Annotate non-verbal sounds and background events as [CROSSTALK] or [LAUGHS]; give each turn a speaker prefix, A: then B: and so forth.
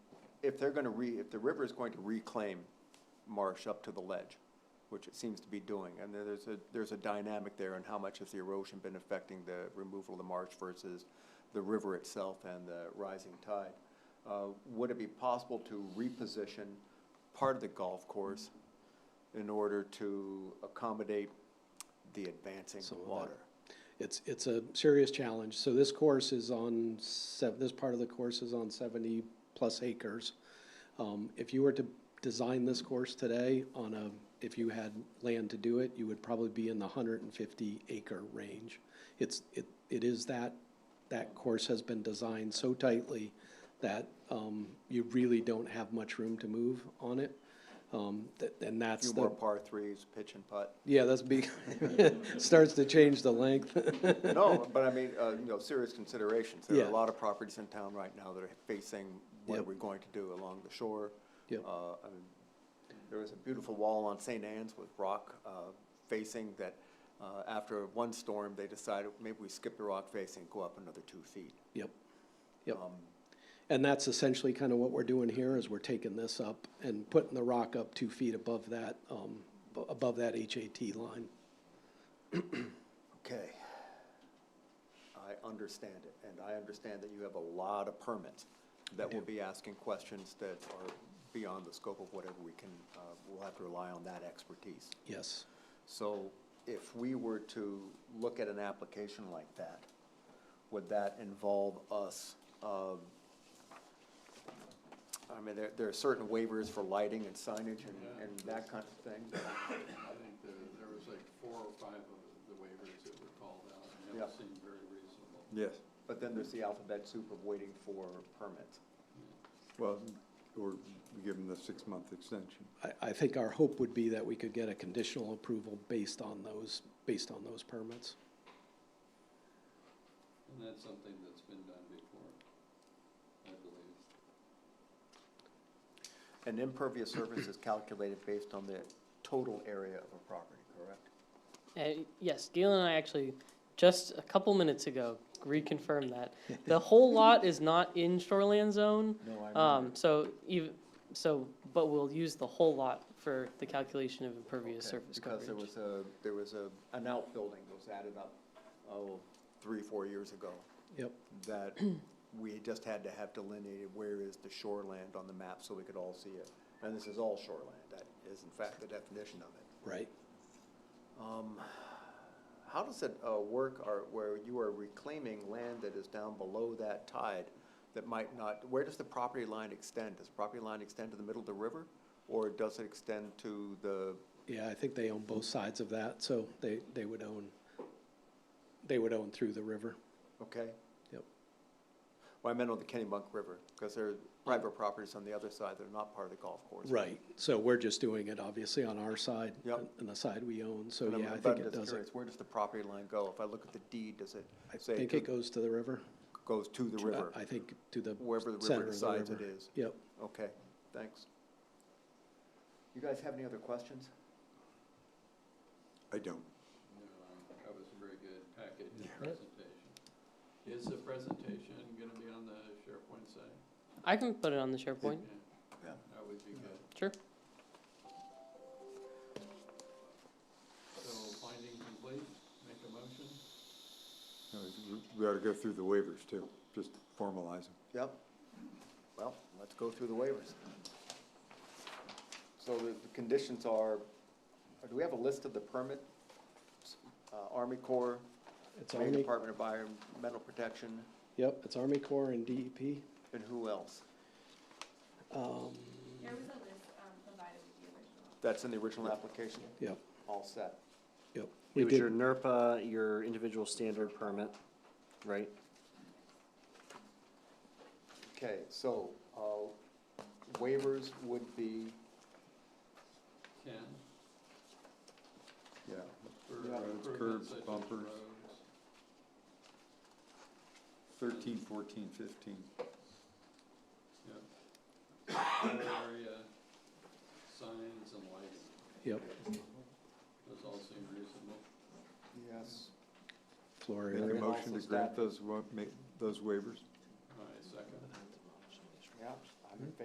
A: if they're gonna re, if the river is going to reclaim marsh up to the ledge, which it seems to be doing, and there- there's a, there's a dynamic there on how much has the erosion been affecting the removal of the marsh versus the river itself and the rising tide. Uh, would it be possible to reposition part of the golf course in order to accommodate the advancing
B: Some of that.
A: water?
B: It's, it's a serious challenge. So this course is on sev- this part of the course is on seventy-plus acres. Um, if you were to design this course today on a, if you had land to do it, you would probably be in the hundred and fifty acre range. It's, it, it is that, that course has been designed so tightly that, um, you really don't have much room to move on it. Um, th- and that's
A: Few
B: the.
A: more par threes, pitch and putt.
B: Yeah, that's big, [LAUGHS] starts to change the length.
A: No, but I mean, uh, you know, serious considerations. There are
B: Yeah.
A: a lot of properties in town right now that are facing, what are
B: Yep.
A: we going to do along the shore?
B: Yep.
A: Uh, I mean, There was a beautiful wall on St. Anne's with rock uh, facing that, uh, after one storm, they decided, maybe we skip the rock facing, go up another two feet.
B: Yep, yep.
A: Um,
B: And that's essentially kind of what we're doing here, is we're taking this up and putting the rock up two feet above that, um, bu- above that HAT line.
A: Okay. I understand it, and I understand that you have a lot of permits that will be asking questions that are beyond the scope of whatever we can, uh, we'll have to rely on that expertise.
B: Yes,
A: So if we were to look at an application like that, would that involve us, um, I mean, there, there are certain waivers for lighting and signage and, and that kind of thing.
C: I think there, there was like four or five of the waivers that were called out, and they all
A: Yeah.
C: seemed very reasonable.
A: Yes. But then there's the alphabet soup of waiting for permits.
D: Well, or give them the six-month extension.
B: I, I think our hope would be that we could get a conditional approval based on those, based on those permits.
C: And that's something that's been done before, I believe.
A: An impervious surface is calculated based on the total area of a property, correct?
E: Uh, Yes, Galen and I actually, just a couple minutes ago,
A: [LAUGHS]
E: reconfirmed that. The whole lot is not in shoreland zone.
A: No, I
E: Um, so even, so, but we'll use the whole lot for the calculation of impervious
A: Okay,
E: surface coverage.
A: Because there was a, there was a, an outbuilding that was added up, oh, three, four years ago,
B: Yep,
A: that we just had to have delineated where is the shoreland on the map so we could all see it. And this is all shoreland, that is in fact the definition of it.
B: right.
A: Um, How does it uh, work, or where you are reclaiming land that is down below that tide that might not, where does the property line extend? Does the property line extend to the middle of the river? Or does it extend to the,
B: Yeah, I think they own both sides of that, so they, they would own, they would own through the river.
A: okay?
B: Yep.
A: Well, I meant on the Kennebunk River, because there are private properties on the other side that are not part of the golf course.
B: Right, so we're just doing it obviously on our side.
A: Yep.
B: And the side we own, so
A: And I'm-
B: yeah, I
A: but
B: think
A: I'm
B: it
A: just
B: does it.
A: curious, Where does the property line go? If I look at the deed, does it
B: I
A: say
B: think
A: to-
B: it goes to the river.
A: goes to the river?
B: I think to the
A: Wherever the river
B: center of the
A: decides it
B: river.
A: is.
B: Yep,
A: Okay, thanks. You guys have any other questions?
D: I don't.
C: You know, that was a very good package and presentation. Is the presentation gonna be on the SharePoint site?
E: I can put it on the SharePoint,
C: Mm-hmm. Yeah, That would be good.
E: sure.
C: So finding complete, make a motion?
D: No, We ought to go through the waivers too, just formalize them.
A: Yep. Well, let's go through the waivers. So the the conditions are, uh, do we have a list of the permit? Uh, Army Corps,
B: it's
A: Maine
B: Army,
A: Department of Environmental Protection,
B: yep, it's Army Corps and E DEP.
A: and who else?
B: Um,
F: There was a list um, provided with the original.
A: That's in the original application?
B: Yep,
A: All set.
B: yep. We
G: It was your
B: did,
G: NERPA, your individual standard permit, right?
A: Okay, so uh, waivers would be,
C: Ken,
D: Yeah.
C: for
D: Yeah. Roads,
C: improvements
D: curbs,
C: such as
D: bumpers.
C: roads.
D: Thirteen, fourteen, fifteen.
C: Yep. [COUGHS] Area, signs and lighting,
B: yep,
C: those all seem reasonable.
A: yes,
B: floor
D: Make a
B: area.
D: motion to
A: Also
D: grant
A: staff.
D: those, wa- make those waivers.
C: All right, second.
A: yeah, I'm in favor